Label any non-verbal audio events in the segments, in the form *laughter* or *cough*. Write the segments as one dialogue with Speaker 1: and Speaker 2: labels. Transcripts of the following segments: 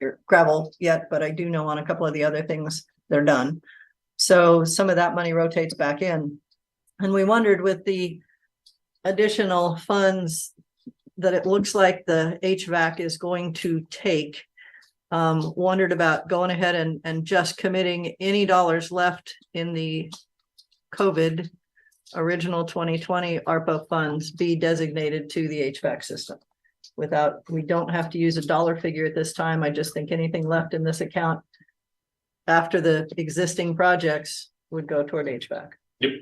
Speaker 1: your gravel yet, but I do know on a couple of the other things, they're done. So some of that money rotates back in. And we wondered with the additional funds that it looks like the HVAC is going to take. Um, wondered about going ahead and, and just committing any dollars left in the COVID original twenty twenty ARPA funds be designated to the HVAC system. Without, we don't have to use a dollar figure at this time. I just think anything left in this account after the existing projects would go toward HVAC.
Speaker 2: You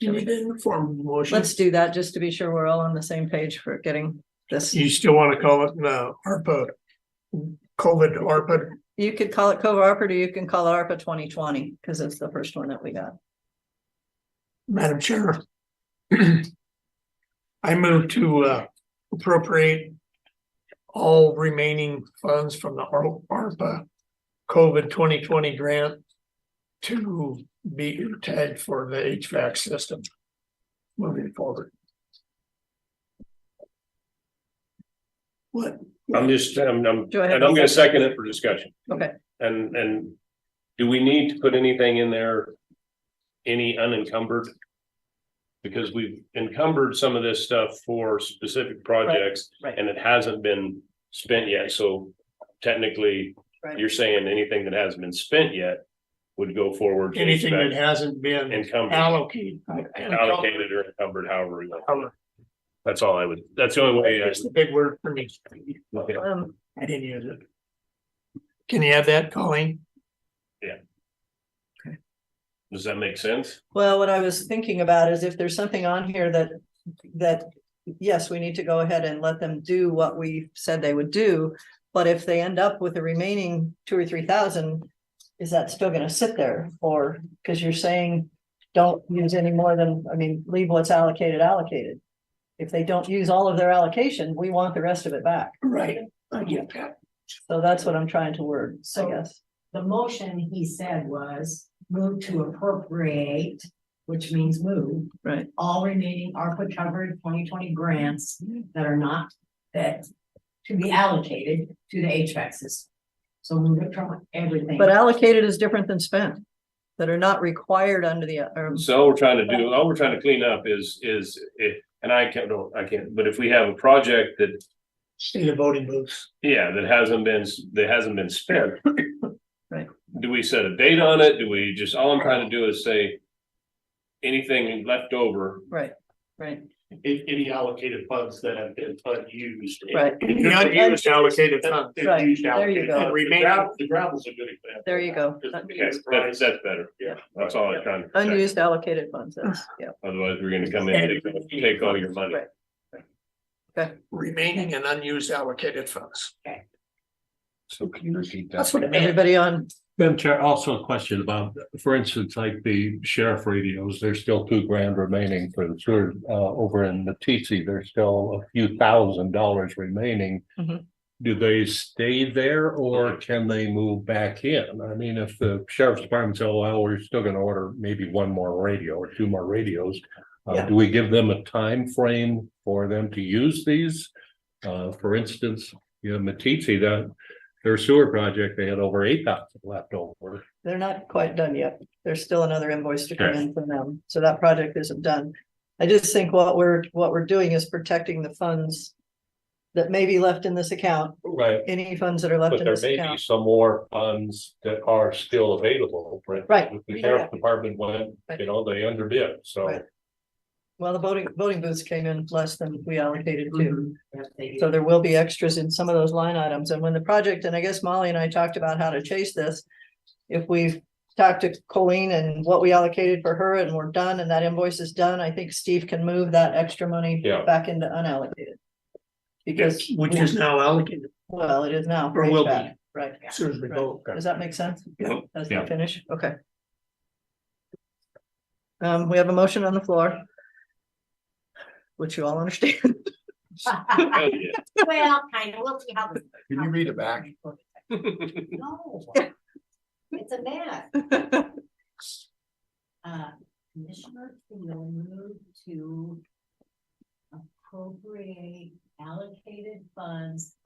Speaker 2: need it in the form of a motion.
Speaker 1: Let's do that just to be sure we're all on the same page for getting this.
Speaker 2: You still want to call it, uh, ARPA, COVID ARPA,
Speaker 1: You could call it COVA ARPA, or you can call it ARPA twenty twenty, because it's the first one that we got.
Speaker 2: Madam Chair. *clears throat* I move to, uh, appropriate all remaining funds from the Ar- ARPA COVID twenty twenty grant to be tagged for the HVAC system moving forward. What?
Speaker 3: I'm just, I'm, I'm,
Speaker 1: Go ahead.
Speaker 3: and I'm gonna second it for discussion.
Speaker 1: Okay.
Speaker 3: And, and do we need to put anything in there? Any unencumbered? Because we've encumbered some of this stuff for specific projects
Speaker 1: right.
Speaker 3: and it hasn't been spent yet, so technically,
Speaker 1: Right.
Speaker 3: you're saying anything that hasn't been spent yet would go forward. to
Speaker 2: Anything that
Speaker 3: HVAC
Speaker 2: hasn't been
Speaker 3: Encumbered,
Speaker 2: allocated.
Speaker 3: allocated or encumbered, however we want.
Speaker 2: Allocated.
Speaker 3: That's all I would, that's the only way. I
Speaker 2: That's the big word for me.
Speaker 3: would look at it.
Speaker 1: Um,
Speaker 2: I didn't use it. Can you have that, Colleen?
Speaker 3: Does that make sense?
Speaker 1: well, what I was thinking about is if there's something on here that, that, yes, we need to go ahead and let them do what we said they would do. But if they end up with the remaining two or three thousand, is that still gonna sit there? Or, because you're saying, don't use any more than, I mean, leave what's allocated allocated. If they don't use all of their allocation, we want the rest of it back.
Speaker 2: Right, I get that.
Speaker 1: So that's what I'm trying to word, I
Speaker 4: So-
Speaker 1: guess.
Speaker 4: The motion he said was move to appropriate, which means move,
Speaker 1: Right.
Speaker 4: all remaining ARPA covered twenty twenty grants that are not, that to be allocated to the HVAC system. So move it from everything.
Speaker 1: But allocated is different than spent, that are not required under the, um, or,
Speaker 3: So all we're trying to do, all we're trying to clean up is, is it, and I can't, don't, I can't, but if we have a project that,
Speaker 2: State of voting booths.
Speaker 3: yeah, that hasn't been, that hasn't been spent.
Speaker 1: Right.
Speaker 3: Do we set a date on it? Do we just, all I'm trying to do is say anything left over,
Speaker 1: right, right,
Speaker 5: Any, any allocated funds that have been unused.
Speaker 1: right,
Speaker 2: Unused allocated funds.
Speaker 5: They've
Speaker 1: Right,
Speaker 5: used
Speaker 1: there
Speaker 5: allocated.
Speaker 1: you go.
Speaker 5: The gravel- The gravel's a good example.
Speaker 1: there you go.
Speaker 5: Because we
Speaker 3: Okay,
Speaker 5: use
Speaker 3: that's,
Speaker 5: brines.
Speaker 3: that's better.
Speaker 5: Yeah.
Speaker 3: That's all I'm trying to. protect.
Speaker 1: Unused allocated funds, that's, yeah,
Speaker 3: Otherwise, we're gonna come in and take- take all your money.
Speaker 1: Right.
Speaker 2: Remaining and unused allocated funds.
Speaker 6: So can you repeat that?
Speaker 2: That's what it meant.
Speaker 1: everybody on,
Speaker 6: Madam Chair, also a question about, for instance, like the sheriff radios, there's still two grand remaining for the sewer, uh, over in Matisse, there's still a few thousand dollars remaining.
Speaker 1: Mhm.
Speaker 6: Do they stay there or can they move back in? I mean, if the sheriff's department says, well, we're still gonna order maybe one more radio or two more radios. Uh,
Speaker 1: Yeah.
Speaker 6: do we give them a time frame for them to use these? Uh, for instance, you know, Matisse, that their sewer project, they had over eight thousand left over.
Speaker 1: they're not quite done yet, there's still another invoice to come in from them, so that project isn't done. I just think what we're, what we're doing is protecting the funds that may be left in this account,
Speaker 6: Right.
Speaker 1: any funds that are left
Speaker 6: But
Speaker 1: in
Speaker 6: there
Speaker 1: this
Speaker 6: may be
Speaker 1: account.
Speaker 6: some more funds that are still available. for instance,
Speaker 1: Right.
Speaker 6: The sheriff department went, you know, they underbid, so.
Speaker 1: Right. Well, the voting, voting booths came in less than we allocated
Speaker 5: Mm-hmm.
Speaker 1: to. *laughs*
Speaker 4: Mhm. Yes, they do.
Speaker 1: So there will be extras in some of those line items. And when the project, and I guess Molly and I talked about how to chase this. If we've talked to Colleen and what we allocated for her and we're done and that invoice is done, I think Steve can move that extra money
Speaker 6: Yeah.
Speaker 1: back into unallocated. Because,
Speaker 2: Which is now allocated
Speaker 1: well, it is now.
Speaker 2: Or will be.
Speaker 1: HVAC, Right.
Speaker 2: as soon as we vote.
Speaker 1: Does that make sense?
Speaker 2: Yeah.
Speaker 1: As we
Speaker 6: Yeah.
Speaker 1: finish, okay. Um, we have a motion on the floor. Which you all understand.
Speaker 3: Hell, yeah.
Speaker 4: *laughs* Well, kind of, we'll see how. Can
Speaker 6: Can you read it back?
Speaker 4: No. It's a mess.
Speaker 6: *laughs*
Speaker 4: Uh, Commissioner Keel moved to appropriate allocated funds